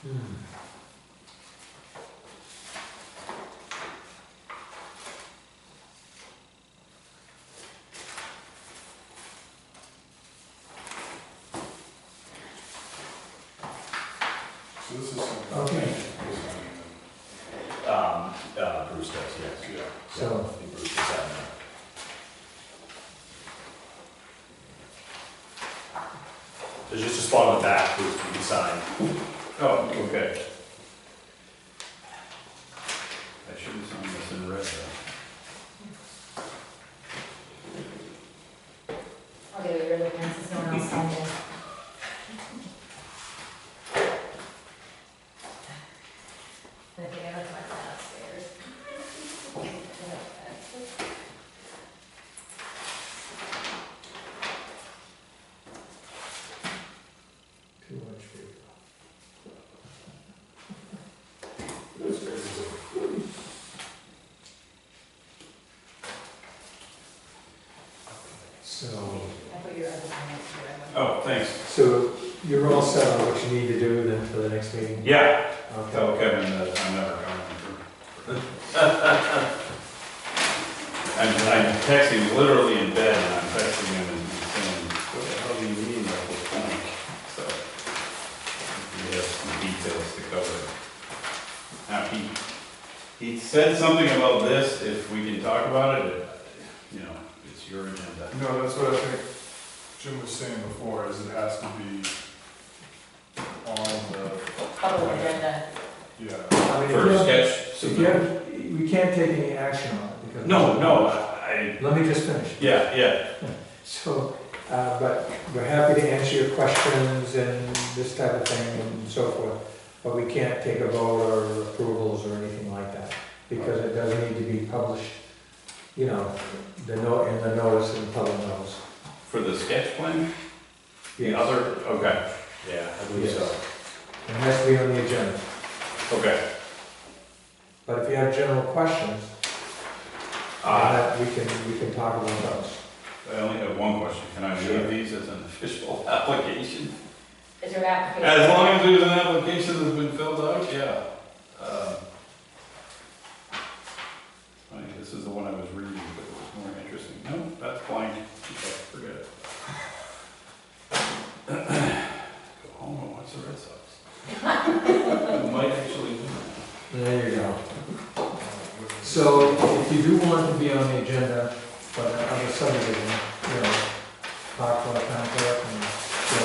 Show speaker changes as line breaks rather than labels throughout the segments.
Hmm. This is something.
Okay.
Um, uh, Bruce does, yes.
Yeah.
So-
Yeah, Bruce does have that. There's just a spot on the back, Bruce, you can sign.
Oh, okay. I should have signed this in red though.
I'll get rid of it once, there's no one else on there. I think I left my file upstairs.
Too much for So,
I put your other one next to it.
Oh, thanks.
so you're all set on what you need to do then for the next meeting?
Yeah,
Okay.
tell Kevin that I'm never coming. I'm, I'm texting literally in bed and I'm texting him and saying, what the hell do you mean by the blank? So, he has some details to cover. Now, he, he said something about this, if we can talk about it, you know, it's your agenda.
No, that's what I think Jim was saying before, is it has to be on the,
Public agenda,
yeah.
I mean, if
For
you have-
sketch.
If you have, we can't take any action on it because.
No, no, I,
Let me just finish.
yeah, yeah,
So, uh, but we're happy to answer your questions and this type of thing and so forth, but we can't take a vote or approvals or anything like that, because it does need to be published, you know, the no, in the notice and public notice.
for the sketch plan, the
Yes.
other, okay,
Yeah, I believe so.
Yes. It has to be on the agenda,
okay.
but if you have general questions,
Uh,
uh, we can, we can talk about those.
I only have one question, can I
Sure.
leave these as an official application?
is your application?
As long as there's an application that's been filled out, yeah. Um, I think this is the one I was reading, but it was more interesting, no, that's blank, okay, forget it. Go home and watch the Red Sox. I Might actually do that.
There you go. So if you do want to be on the agenda for the other subdivision, you know, talk to our town clerk and go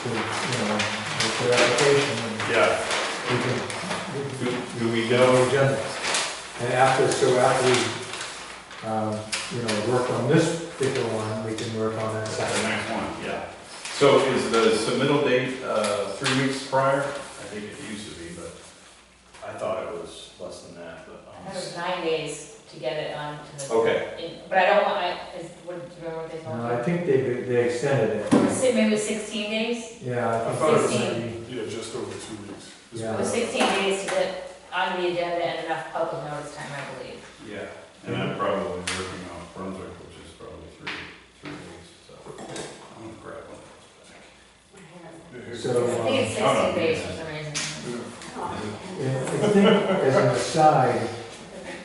to, you know, make their application and
Yeah,
we can,
do, do we
we can
know,
go agenda. And after, so after we, um, you know, work on this particular one, we can work on that
the
second.
next one, yeah. So is the submittal date, uh, three weeks prior? I think it used to be, but,
I thought it was less than that, but.
I
um,
thought it was nine days to get it on to the,
okay,
in- but I don't want, I, is, what, do you remember what they told
No, I
me?
think they, they extended it.
Si- Maybe it was sixteen days?
Yeah, I
I
think
thought it
it
was-
might be-
Yeah, just over two weeks. This-
It
Yeah.
was sixteen days to get on the agenda and enough public notice time, I believe.
yeah. And I'm probably working on Brunswick, which is probably three, three weeks, so I'm gonna grab one. of
Yeah, here-
So, um,
I think it's
Oh, no.
sixteen days for some reason.
Yeah.
Yeah, I think as an aside,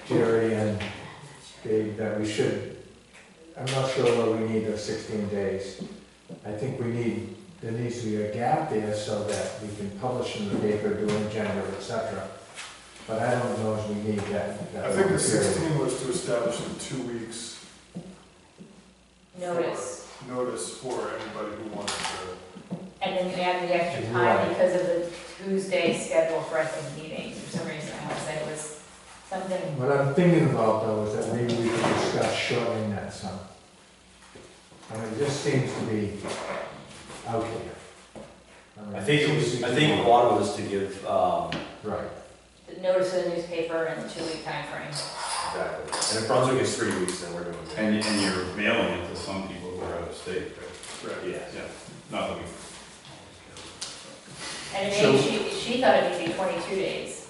Jerry and Dave, that we should, I'm not sure whether we need those sixteen days. I think we need, there needs to be a gap there so that we can publish in the paper, do an agenda, et cetera. But I don't know if we need that. that
I think
long period.
the sixteen was to establish the two weeks
notice,
notice for anybody who wanted to.
and then you add the extra
Right.
time because of the Tuesday schedule for, I think, meetings, for some reason, I would say it was something,
What I'm thinking about though is that maybe we could discuss shortening that some. I mean, it just seems to be out here. mean,
I think it was, I think one was to give, um,
Right.
the notice of the newspaper and the two-week timeframe.
exactly, and if Brunswick is three weeks, then we're doing
those.
ten.
And, and you're mailing it to some people who are out of state, right?
Right.
Yes.
Yeah, not that we.
And maybe she, she thought it would be twenty-two days,